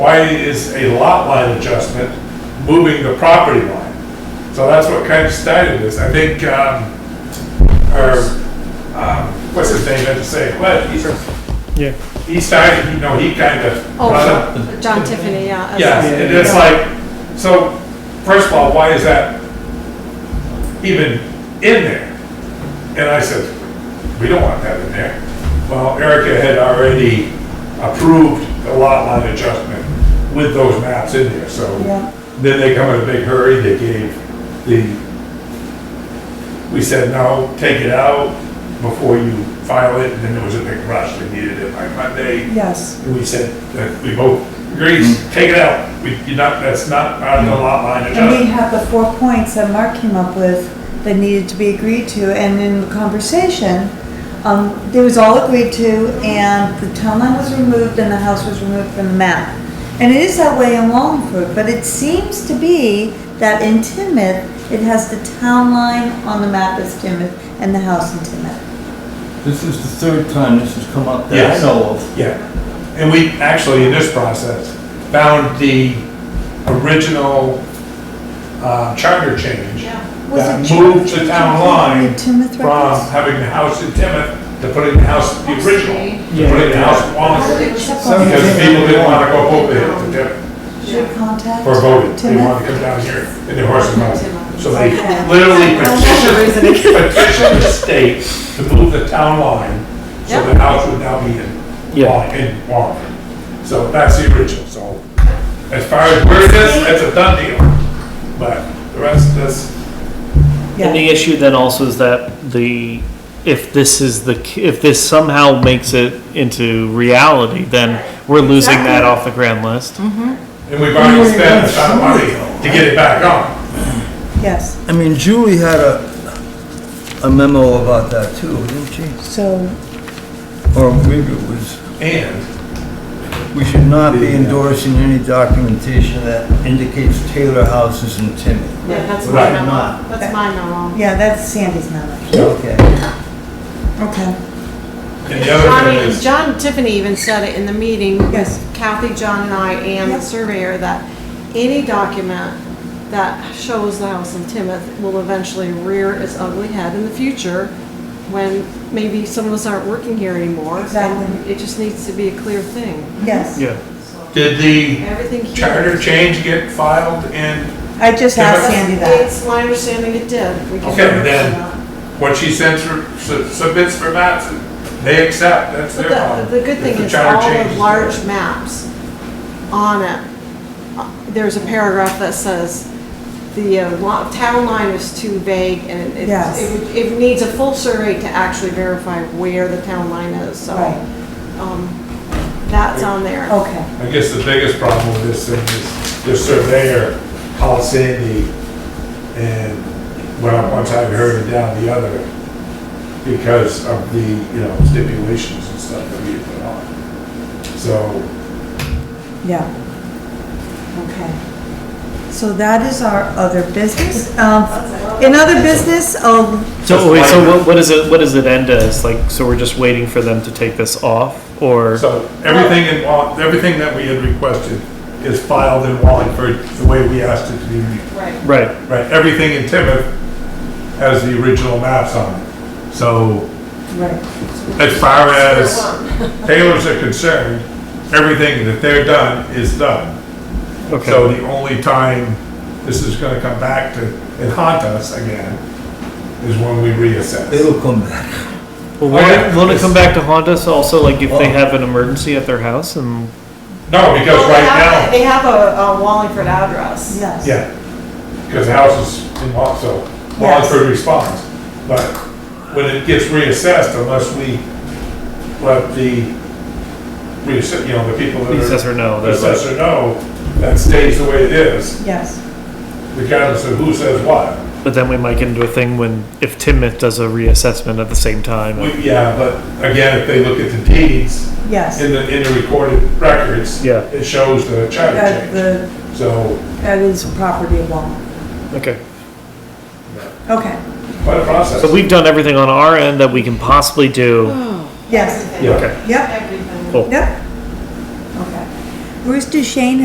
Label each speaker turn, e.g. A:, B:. A: Why is a lot line adjustment moving the property line? So that's what kind of started this. I think, um, or, um, what's his name, I had to say, but he,
B: Yeah.
A: he started, you know, he kind of brought up.
C: Oh, John Tiffany, yeah.
A: Yeah, and it's like, so, first of all, why is that even in there? And I said, we don't want that in there. Well, Erica had already approved the lot line adjustment with those maps in there, so. Then they come in a big hurry, they gave the, we said, no, take it out before you file it, and then there was a big rush, they needed it by Monday.
D: Yes,
A: And we said that we both agreed,
D: Mm-hmm.
A: take it out. We, you're not, that's not part of the lot line
D: and we
A: adjustment.
D: have the four points that Mark came up with that needed to be agreed to, and in the conversation, um, it was all agreed to, and the town line was removed and the house was removed from the map. And it is that way in Wallingford, but it seems to be that in Timoth, it has the town line on the map as Timoth and the house in Timoth.
E: This is the third time this has come up that
A: Yes.
E: I know of.
A: Yeah. And we actually, in this process, found the original, uh, charter change
D: Was
A: that
D: it
A: moved
D: Timoth-
A: the town line
D: Timoth
A: from
D: records?
A: having the house in Timoth to putting the house, the original, to
B: Yeah.
A: putting the house in Wallingford. Because people didn't wanna go over there to Timoth
D: Should we contact?
A: for voting. They
D: Timoth?
A: wanted to come down here in their horse and mount. So they
D: Okay.
A: literally
C: Another
A: petitioned
C: reason again.
A: petition the state to move the town line, so the
C: Yep.
A: house would now be in, Wall- in Wallingford. So that's the original, so as far as where it is, it's a done deal. But the rest, that's,
B: And the issue then also is that the, if this is the, if this somehow makes it into reality, then we're losing that off the grand list.
A: and we've already spent a ton of money to get it back on.
D: Yes,
E: I mean, Julie had a, a memo about that too, didn't she?
D: so
E: Or maybe it was, uh,
A: And,
E: we should not be endorsing any documentation that indicates Taylor House is in Timoth.
C: Yeah, that's my
A: Right.
C: memo. That's my memo.
D: Yeah, that's Sandy's memo.
E: Okay.
D: Okay.
A: and the
C: I
A: other thing
C: mean,
A: is,
C: John Tiffany even said it in the meeting,
D: Yes.
C: with Kathy, John and I, and the
D: Yep.
C: surveyor, that any document that shows the house in Timoth will eventually rear its ugly head in the future when maybe some of us aren't working here anymore. and
D: Exactly.
C: It just needs to be a clear thing.
D: Yes.
B: Yeah.
A: did the
C: Everything here.
A: charter change get filed in
D: I just asked Sandy that.
C: It's my understanding it did. We can
A: Okay,
C: verify
A: then-
C: that.
A: what she sends, her- su- submits for maps, they accept, that's their
C: But
A: problem.
C: the, the good
A: If
C: thing
A: the
C: is
A: charter
C: all the
A: changes.
C: large maps on it, uh, there's a paragraph that says the uh, lo- town line is too vague and it,
D: Yes.
C: it would- it needs a full survey to actually verify where the town line is, so.
D: Right. Oh.
C: um, That's on there.
D: Okay,
A: I guess the biggest problem with this thing is the surveyor called Sandy and went up one side of her and down the other because of the, you know, stipulations and stuff that we had put on. So,
D: yeah. Okay. So that is our other business. Um, In other business, um,
B: So, wait, so what, what is it, what does it end as? Like, so we're just waiting for them to take this off or?
A: So everything in, Wall- everything that we had requested is filed in Wallingford the way we asked it to be.
C: Right.
B: Right,
A: Right, everything in Timoth has the original maps on it. So
D: right,
A: as far as Taylors are concerned, everything that they're done is done. So
B: okay.
A: the only time this is gonna come back to, and haunt us again, is when we reassess.
E: It'll come back.
B: Well,
A: Oh, yeah.
B: won't, won't it come back to haunt us also, like if they have an emergency at their house and?
A: No, because
C: Well, they
A: right
C: have-
A: now,
C: They have a a Wallingford address.
D: yes.
A: yeah, because the house is in Wall, so Wallingford responds. But when it gets reassessed, unless we let the, reassess, you know, the people
B: The
A: that are
B: Assessor, no, they're Uh, like,
A: assessor know, that stays the way it is.
D: Yes,
A: regardless of who says what.
B: but then we might get into a thing when, if Timoth does a reassessment at the same time.
A: We- Yeah, but again, if they look at the deeds
D: yes.
A: in the, in the recorded records,
B: Yeah.
A: it shows the
D: That,
A: charter
D: Uh, the,
A: change. So,
D: that is property of Walmart.
B: Okay.
D: Okay,
A: quite a process.
B: So we've done everything on our end that we can possibly do.
D: yes,
A: Yeah.
B: Okay.
D: yep,
B: Cool.
D: yep. Okay. Bruce Duchesne